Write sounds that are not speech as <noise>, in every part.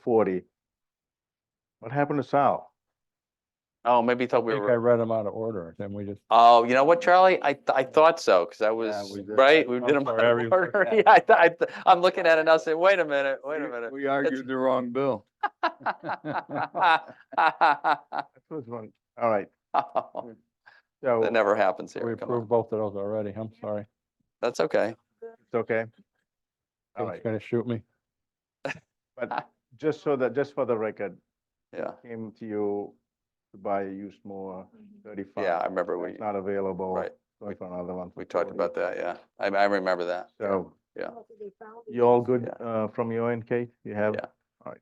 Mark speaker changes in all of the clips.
Speaker 1: forty. What happened to Sal?
Speaker 2: Oh, maybe you thought we
Speaker 3: I think I
Speaker 2: were,
Speaker 3: read them out of order, then we just.
Speaker 2: oh, you know what, Charlie? I, th- I thought so, because I was,
Speaker 3: we did.
Speaker 2: right? We
Speaker 3: I'm
Speaker 2: did them
Speaker 3: sorry,
Speaker 2: out <laughs>
Speaker 3: I
Speaker 2: of
Speaker 3: reviewed
Speaker 2: order.
Speaker 3: that. <laughs>
Speaker 2: Yeah, I, th- I, th- I'm looking at it now saying, wait a minute, wait a <laughs> minute.
Speaker 4: We argued the wrong bill.
Speaker 1: That was one- All right,
Speaker 2: Oh,
Speaker 1: so
Speaker 2: That never happens
Speaker 3: We
Speaker 2: here. Come on.
Speaker 3: approved both of those already, I'm sorry.
Speaker 2: That's okay.
Speaker 1: it's okay. All
Speaker 3: It's
Speaker 1: right,
Speaker 3: gonna shoot me.
Speaker 1: just so that, just for the record,
Speaker 2: Yeah,
Speaker 1: came to you to buy a used more thirty-five.
Speaker 2: yeah, I remember we,
Speaker 1: It's not available.
Speaker 2: right,
Speaker 1: Going for another one. for
Speaker 2: we talked
Speaker 1: 40.
Speaker 2: about that, yeah. I, I remember that.
Speaker 1: So
Speaker 2: Yeah.
Speaker 1: you all good
Speaker 2: Yeah.
Speaker 1: uh, from your end, Kate? You have?
Speaker 2: Yeah.
Speaker 1: All right.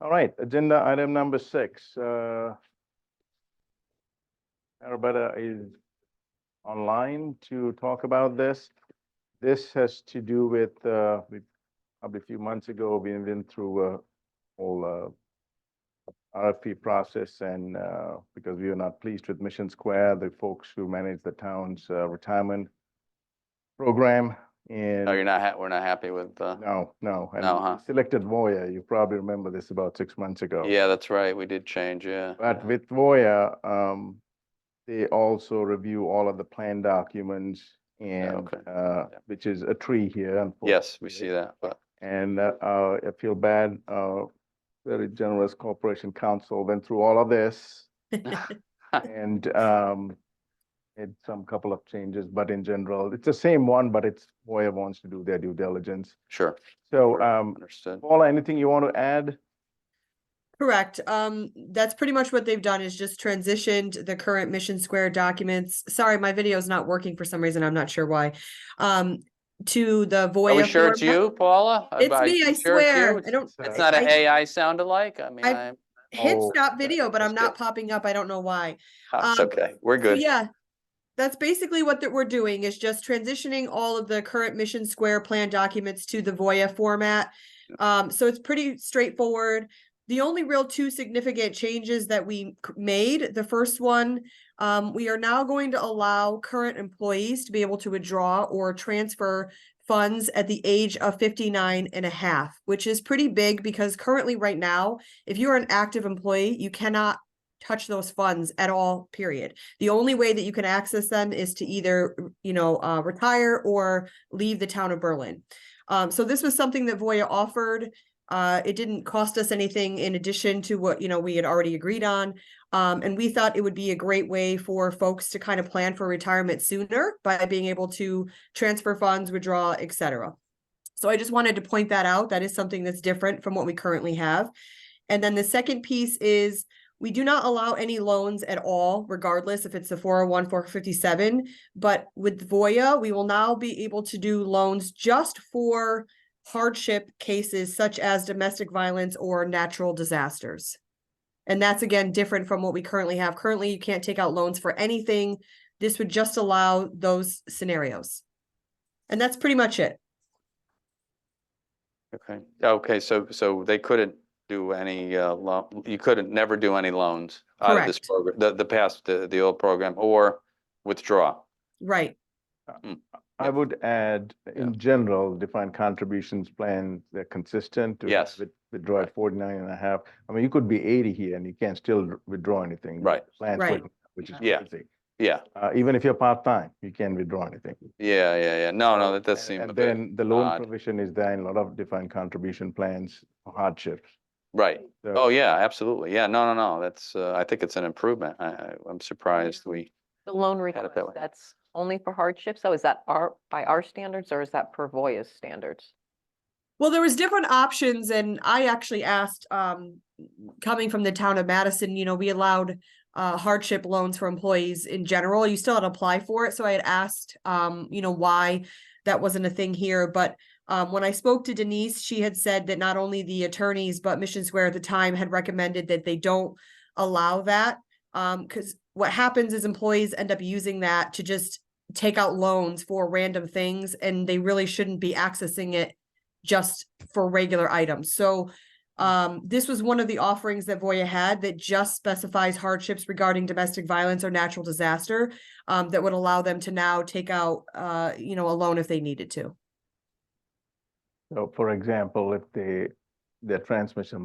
Speaker 1: All right, agenda item number six. uh, Arabetta is online to talk about this. This has to do with, uh, we- probably a few months ago, we've been through a whole uh, RFP process and uh, because we were not pleased with Mission Square, the folks who manage the town's uh, retirement program and.
Speaker 2: No, Oh, you're not, ha- we're not happy with, uh,
Speaker 1: No, no. and
Speaker 2: No,
Speaker 1: we
Speaker 2: huh?
Speaker 1: Selected Voya, you probably remember this about six months ago.
Speaker 2: yeah, that's right. We did change, yeah.
Speaker 1: But with Voya, um, they also review all of the plan documents and,
Speaker 2: okay.
Speaker 1: uh,
Speaker 2: Yeah.
Speaker 1: which is a tree here. unfortunately.
Speaker 2: Yes, we see that, but
Speaker 1: And, uh, uh, I feel bad, uh, very generous corporation counsel went through all of
Speaker 2: <laughs>
Speaker 1: this. And, um, made some couple of changes, but in general, it's the same one, but it's Voya wants to do their due diligence.
Speaker 2: sure,
Speaker 1: So,
Speaker 2: Sure.
Speaker 1: um,
Speaker 2: understood.
Speaker 1: Paula, anything you want to add?
Speaker 5: Correct. Um, that's pretty much what they've done is just transitioned the current Mission Square documents. Sorry, my video is not working for some reason. I'm not sure why. Um, to the Voya.
Speaker 2: Are we sure
Speaker 5: form.
Speaker 2: it's you, Paula? Are-
Speaker 5: It's
Speaker 2: are
Speaker 5: me,
Speaker 2: you sure
Speaker 5: I
Speaker 2: it's you?
Speaker 5: swear.
Speaker 2: It's-
Speaker 5: I don't.
Speaker 2: It's
Speaker 1: I-
Speaker 2: not an
Speaker 5: I-
Speaker 2: AI sound alike? I mean,
Speaker 5: I-
Speaker 2: I'm,
Speaker 5: Hit
Speaker 1: Oh,
Speaker 5: stop
Speaker 2: okay.
Speaker 5: video, but I'm
Speaker 2: That's
Speaker 5: not
Speaker 2: good.
Speaker 5: popping up. I don't know why.
Speaker 2: oh, it's
Speaker 5: Um,
Speaker 2: okay. We're
Speaker 5: So
Speaker 2: good.
Speaker 5: Yeah, that's basically what that we're doing is just transitioning all of the current Mission Square plan documents to the Voya format. Um, so it's pretty straightforward. The only real two significant changes that we c- made, the first one, um, we are now going to allow current employees to be able to withdraw or transfer funds at the age of 59 and a half, which is pretty big because currently right now, if you're an active employee, you cannot touch those funds at all, period. The only way that you can access them is to either, you know, uh, retire or leave the town of Berlin. Um, so this was something that Voya offered. Uh, it didn't cost us anything in addition to what, you know, we had already agreed on. Um, and we thought it would be a great way for folks to kind of plan for retirement sooner by being able to transfer funds, withdraw, et cetera. So I just wanted to point that out. That is something that's different from what we currently have. And then the second piece is we do not allow any loans at all, regardless if it's oh the 401, 457. But with Voya, we will now be able to do loans just for hardship cases such as domestic violence or natural disasters. And that's again different from what we currently have. Currently, you can't take out loans for anything. This would just allow those scenarios. And that's pretty much it.
Speaker 2: Okay, okay, so, so they couldn't do any, uh, loan, you couldn't never do any loans out of this
Speaker 5: Correct.
Speaker 2: program, the, the past, the, the old program, or withdraw.
Speaker 5: Right.
Speaker 1: I
Speaker 2: Yeah.
Speaker 1: would add, in general, defined contributions plan, they're consistent. to
Speaker 2: Yes.
Speaker 1: with- Withdraw at 49 and a half. I mean, you could be eighty here and you can't still dr- withdraw anything.
Speaker 2: Right.
Speaker 1: Plan,
Speaker 5: Right.
Speaker 1: which is
Speaker 2: Yeah.
Speaker 1: crazy.
Speaker 2: Yeah,
Speaker 1: Uh, even if you're part-time, you can't withdraw anything.
Speaker 2: yeah, yeah, yeah. No, no,
Speaker 1: So-
Speaker 2: that does
Speaker 1: and-
Speaker 2: seem a
Speaker 1: And
Speaker 2: bit,
Speaker 1: then the loan
Speaker 2: odd.
Speaker 1: provision is there in a lot of defined contribution plans for hardships.
Speaker 2: right.
Speaker 1: So-
Speaker 2: Oh, yeah, absolutely. Yeah, no, no, no, that's, uh, I think it's an improvement. I, I, I'm surprised we,
Speaker 6: The loan
Speaker 2: it that
Speaker 6: request,
Speaker 2: way.
Speaker 6: that's only for hardship. So is that our, by our standards or is that per Voya's standards?
Speaker 5: Well, there was different options and I actually asked, um, coming from the town of Madison, you know, we allowed uh hardship loans for employees in general. You still had to apply for it. So I had asked, um, you know, why that wasn't a thing here, but um, when I spoke to Denise, she had said that not only the attorneys, but Mission Square at the time had recommended that they don't allow that. Um, because what happens is employees end up using that to just take out loans for random things and they really shouldn't be accessing it just for regular items. So um, this was one of the offerings that Voya had that just specifies hardships regarding domestic violence or natural disaster um, that would allow them to now take out, uh, you know, a loan if they needed to.
Speaker 1: So for example, if they their transmission